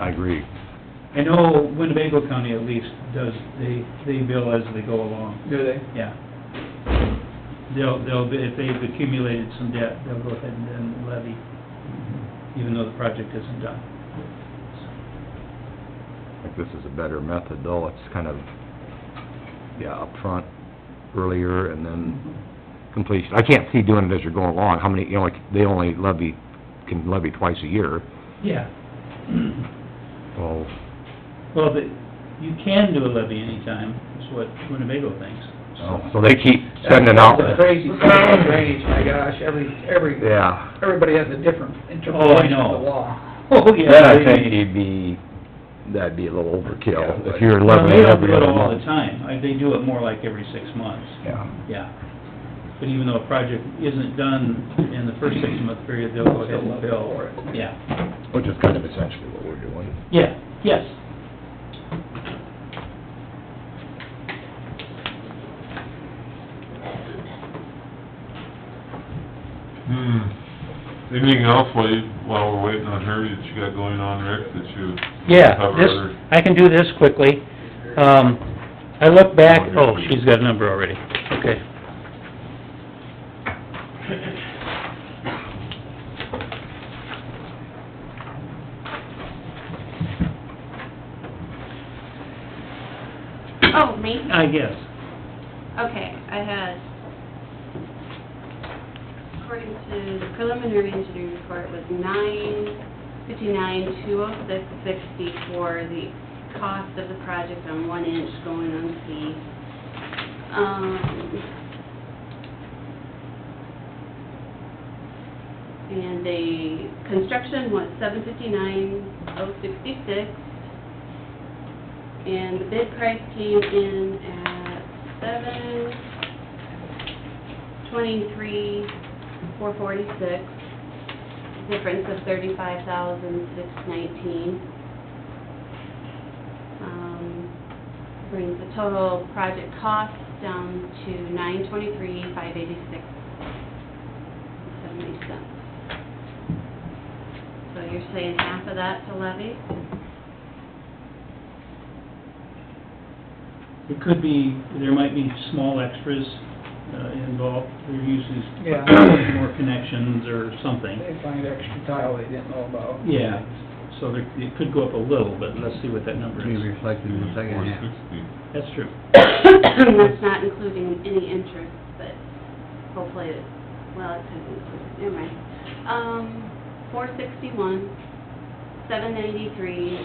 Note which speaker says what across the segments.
Speaker 1: I agree.
Speaker 2: I know oh, Winnebago County at least does, they, they bill as they go along,
Speaker 3: Do they?
Speaker 2: yeah. They'll, they'll, be- if they've accumulated some debt, they'll go ahead and- and levy, even though the project isn't done.
Speaker 1: I think this is a better method, though, it's kind of, yeah, upfront, earlier, and then completion. I can't see doing it as you're going along, how many, you know, like, they only levy, can levy twice a year,
Speaker 2: Yeah.
Speaker 1: so,
Speaker 2: Well, but you can do a levy anytime, is what Winnebago thinks.
Speaker 1: Oh, so they keep sending out,
Speaker 3: That's the Crazy thing about drainage, my gosh, every, every,
Speaker 1: yeah.
Speaker 3: everybody has a different
Speaker 2: Oh, I
Speaker 3: interpretation
Speaker 2: know.
Speaker 3: of the law.
Speaker 2: Oh, yeah.
Speaker 1: Then I
Speaker 2: they-
Speaker 1: think you'd be, that'd be a little overkill, if you're
Speaker 2: Well, they
Speaker 1: levying
Speaker 2: don't do
Speaker 1: every
Speaker 2: it
Speaker 1: other
Speaker 2: all the
Speaker 1: month.
Speaker 2: time, I- they do it more like every six months.
Speaker 1: Yeah,
Speaker 2: Yeah. But even though a project isn't done in the first six-month period, they'll go ahead and bill.
Speaker 3: For it.
Speaker 2: Yeah,
Speaker 1: which is kind of essentially what we're doing.
Speaker 2: yeah, yes.
Speaker 4: Hmm. Anything else while you, while we're waiting on her that you got going on, Rick, that you
Speaker 5: Yeah,
Speaker 4: cover?
Speaker 5: this,
Speaker 4: or-
Speaker 5: I can do this quickly. Um, I look back, oh, she's got a number already, okay.
Speaker 6: Oh, me?
Speaker 2: I guess.
Speaker 6: Okay, I had, according to the preliminary engineering report, was nine fifty-nine, two oh six sixty for the cost of the project on one inch going on C. Um, and the construction was seven fifty-nine, oh sixty-six. And the bid price came in at seven twenty-three, four forty-six, difference of thirty-five thousand, six nineteen. Um, Brings the total project cost down to nine twenty-three, five eighty-six, seventy cents. So you're saying half of that to levy?
Speaker 2: It could be, there might be small extras uh, involved, there usually
Speaker 3: Yeah.
Speaker 2: is more connections or something.
Speaker 3: They find extra tile they didn't know about.
Speaker 2: Yeah, so there, it could go up a little, but let's see what that number
Speaker 7: be
Speaker 2: is.
Speaker 7: reflected in the second half.
Speaker 4: 460.
Speaker 2: That's true.
Speaker 6: That's not including any interest, but hopefully, it well, it could include, never mind. Um, four sixty-one, seven ninety-three,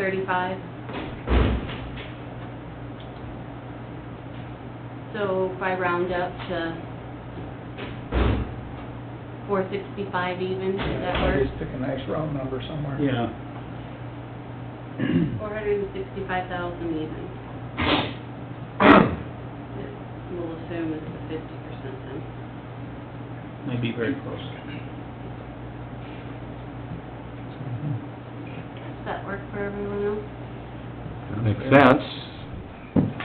Speaker 6: thirty-five. So if I round up to four sixty-five even, does that
Speaker 3: Yeah,
Speaker 6: work?
Speaker 3: uh, Just pick a nice round number somewhere.
Speaker 2: Yeah.
Speaker 6: Four hundred and sixty-five thousand even. We'll assume it's the fifty percent then.
Speaker 2: Might be very close.
Speaker 6: Does that work for everyone else?
Speaker 1: Makes sense.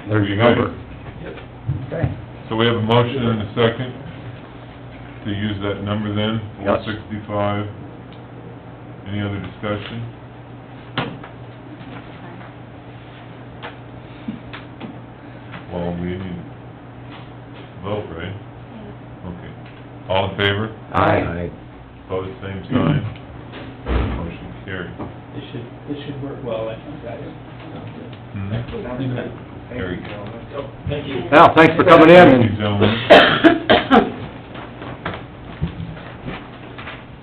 Speaker 1: There's your number.
Speaker 3: Okay.
Speaker 4: So we have a motion and a second to use that number then, four
Speaker 1: Yes.
Speaker 4: sixty-five. Any other discussion? Well, we need to vote, right? Okay. All in favor?
Speaker 1: Aye.
Speaker 4: Pose same sign. Motion carried.
Speaker 2: It should, it should work well, I think, guys. Mm-hmm.
Speaker 4: Hmm? Very good.
Speaker 2: Thank you.
Speaker 1: Al, thanks for coming in
Speaker 4: Thank you,
Speaker 1: and
Speaker 4: gentlemen.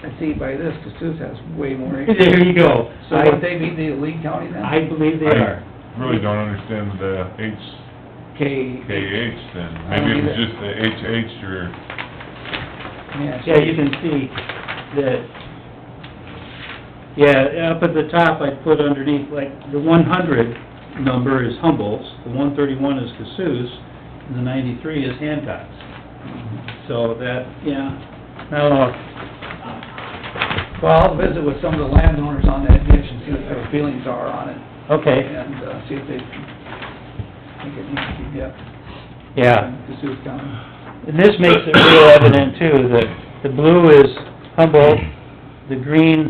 Speaker 3: I see by this, Cassuth has way more.
Speaker 2: There you go. So
Speaker 3: So would they be the Lee County then?
Speaker 2: I believe they are.
Speaker 4: I really don't understand the H,
Speaker 3: K.
Speaker 4: KH then. Maybe it was just the HH or
Speaker 3: Yeah.
Speaker 2: Yeah, you can see that, yeah, up at the top, I put underneath, like, the one hundred number is Humboldt's, the one thirty-one is Cassous, and the ninety-three is Hancock's. So that, yeah, now,
Speaker 5: Oh,
Speaker 3: Well, I'll visit with some of the landowners on that ditch and see what their feelings are on it,
Speaker 5: Okay,
Speaker 3: and, uh, see if they think it needs to be depth.
Speaker 5: yeah.
Speaker 3: Cassuth County.
Speaker 5: And this makes it real evident too, that the blue is Humboldt, the green